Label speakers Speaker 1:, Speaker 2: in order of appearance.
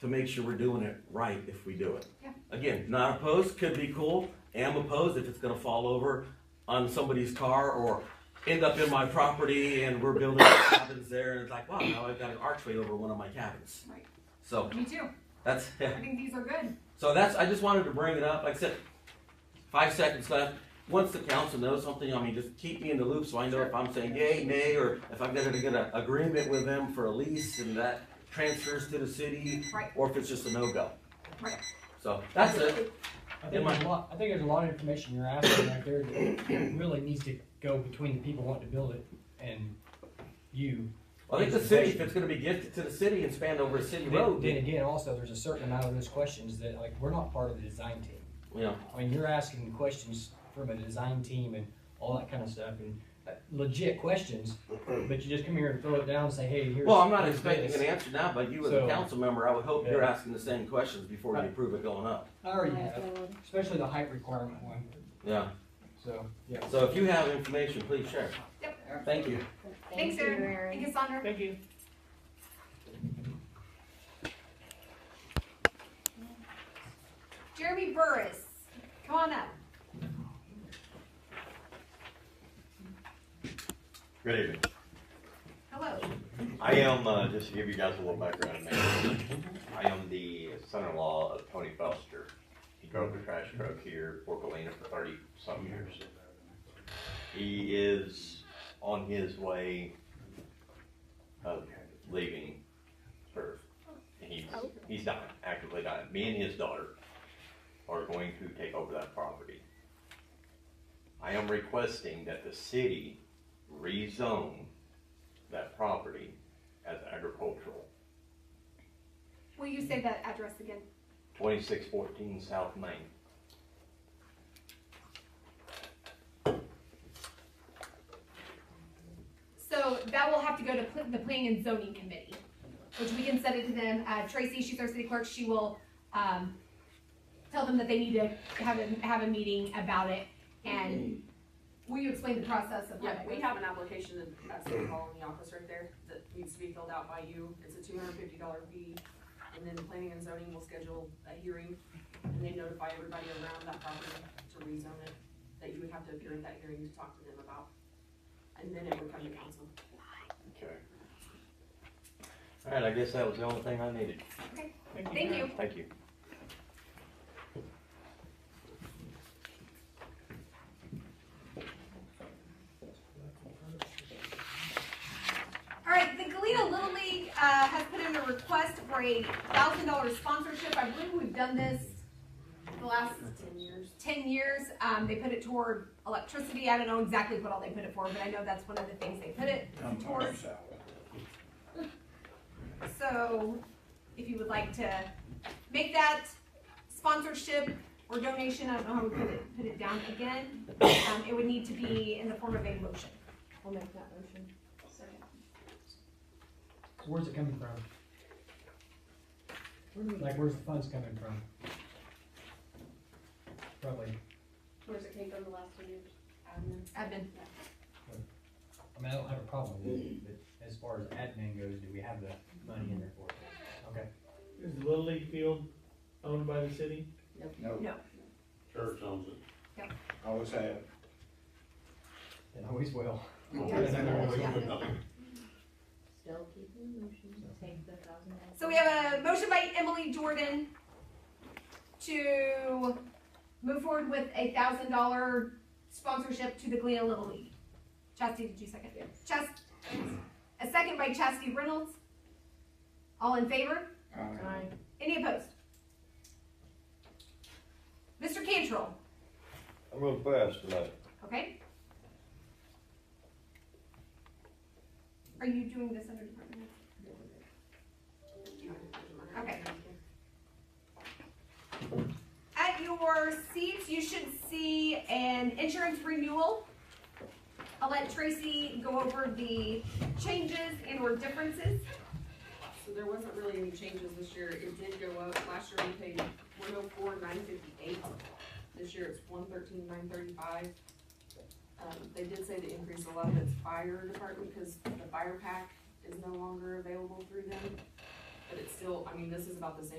Speaker 1: to make sure we're doing it right if we do it.
Speaker 2: Yeah.
Speaker 1: Again, not opposed, could be cool, am opposed if it's gonna fall over on somebody's car or end up in my property and we're building cabins there and it's like, wow, now I've got an archway over one of my cabins.
Speaker 2: Right.
Speaker 1: So,
Speaker 2: Me too.
Speaker 1: that's,
Speaker 2: I think these are good.
Speaker 1: so that's, I just wanted to bring it up, like I said, five seconds left. Once the council knows something, I mean, just keep me in the loop so I know if I'm saying yay, nay, or if I'm gonna get an agreement with them for a lease and that transfers to the city,
Speaker 2: Right.
Speaker 1: or if it's just a no-go.
Speaker 2: Right.
Speaker 1: So, that's it.
Speaker 3: I
Speaker 1: Am
Speaker 3: think
Speaker 1: I-
Speaker 3: there's a lot, I think there's a lot of information you're asking right there that really needs to go between the people wanting to build it and you.
Speaker 1: I think the city, if it's gonna be gifted to the city and spanned over a city
Speaker 3: Then
Speaker 1: road,
Speaker 3: then
Speaker 1: you
Speaker 3: again, also, there's a certain amount of those questions that, like, we're not part of the design team.
Speaker 1: know,
Speaker 3: I mean, you're asking questions from a design team and all that kind of stuff and uh, legit questions, but you just come here and throw it down and say, hey, here's.
Speaker 1: well, I'm not
Speaker 3: here's
Speaker 1: expecting
Speaker 3: this.
Speaker 1: an answer now, but you as a
Speaker 3: So-
Speaker 1: council member, I would hope you're
Speaker 3: Yeah.
Speaker 1: asking the same questions before you
Speaker 3: Right.
Speaker 1: approve it going up.
Speaker 3: I already have, especially the height requirement one,
Speaker 1: Yeah,
Speaker 3: so, yeah.
Speaker 1: so if you have information, please share.
Speaker 2: Yep.
Speaker 1: Thank you.
Speaker 2: Thanks, Erin. Thank you, Sandra.
Speaker 4: Thank you.
Speaker 2: Jeremy Burris, come on up.
Speaker 5: Good evening.
Speaker 2: Hello.
Speaker 5: I am, uh, just to give you guys a little background, man. I am the son-in-law of Tony Foster. He drove the trash truck here, Fort Galena, for thirty-some years. He is on his way of leaving Earth. He's, he's dying, actively dying. Me and his daughter are going to take over that property. I am requesting that the city rezone that property as agricultural.
Speaker 2: Will you say that address again?
Speaker 5: Twenty-six fourteen South Main.
Speaker 2: So that will have to go to pl- the planning and zoning committee, which we can send it to them. Uh, Tracy, she's our city clerk, she will, um, tell them that they need to have a, have a meeting about it and will you explain the process of how
Speaker 6: Yeah,
Speaker 2: that
Speaker 6: we
Speaker 2: goes?
Speaker 6: have an application in- at City Hall in the office right there that needs to be filled out by you. It's a two hundred and fifty dollar fee. And then planning and zoning will schedule a hearing and they notify everybody around that property to rezone it, that you would have to appear at that hearing to talk to them about. And then it would come to council.
Speaker 5: Okay. All right, I guess that was the only thing I needed.
Speaker 2: Thank you.
Speaker 5: Thank you.
Speaker 2: All right, the Galena Little League, uh, has put in a request for a thousand dollar sponsorship. I believe we've done this the last
Speaker 6: Ten years.
Speaker 2: ten years. Um, they put it toward electricity. I don't know exactly what all they put it for, but I know that's one of the things they put it towards. So, if you would like to make that sponsorship or donation, I don't know how we put it, put it down again, um, it would need to be in the form of a motion.
Speaker 4: I'll make that motion.
Speaker 3: Where's it coming from? Like, where's the funds coming from? Probably,
Speaker 4: Where's it came from the last two years?
Speaker 6: Admin.
Speaker 2: Admin,
Speaker 3: I mean, I don't have a problem with it, but as far as admin goes, do we have the money in there for it? Okay.
Speaker 7: Is the Little League field owned by the city?
Speaker 8: No.
Speaker 2: No.
Speaker 8: Church owns it.
Speaker 2: Yep.
Speaker 8: Always have.
Speaker 3: And always will.
Speaker 4: Still keeping the motion, take the thousand. out.
Speaker 2: so we have a motion by Emily Jordan to move forward with a thousand dollar sponsorship to the Galena Little League. Chastity, did you second?
Speaker 4: Yes.
Speaker 2: Chas, a second by Chastity Reynolds. All in favor?
Speaker 4: Aye.
Speaker 2: Any opposed? Mr. Cantrell,
Speaker 5: I'm real fast tonight.
Speaker 2: okay? Are you doing this under department? heads? Okay. At your seats, you should see an insurance renewal. I'll let Tracy go over the changes and or differences.
Speaker 6: So there wasn't really any changes this year, it did go up, last year we paid one oh four, nine fifty-eight, this year it's one thirteen, nine thirty-five. Um, they did say to increase a lot of its fire department, cause the fire pack is no longer available through them. But it's still, I mean, this is about the same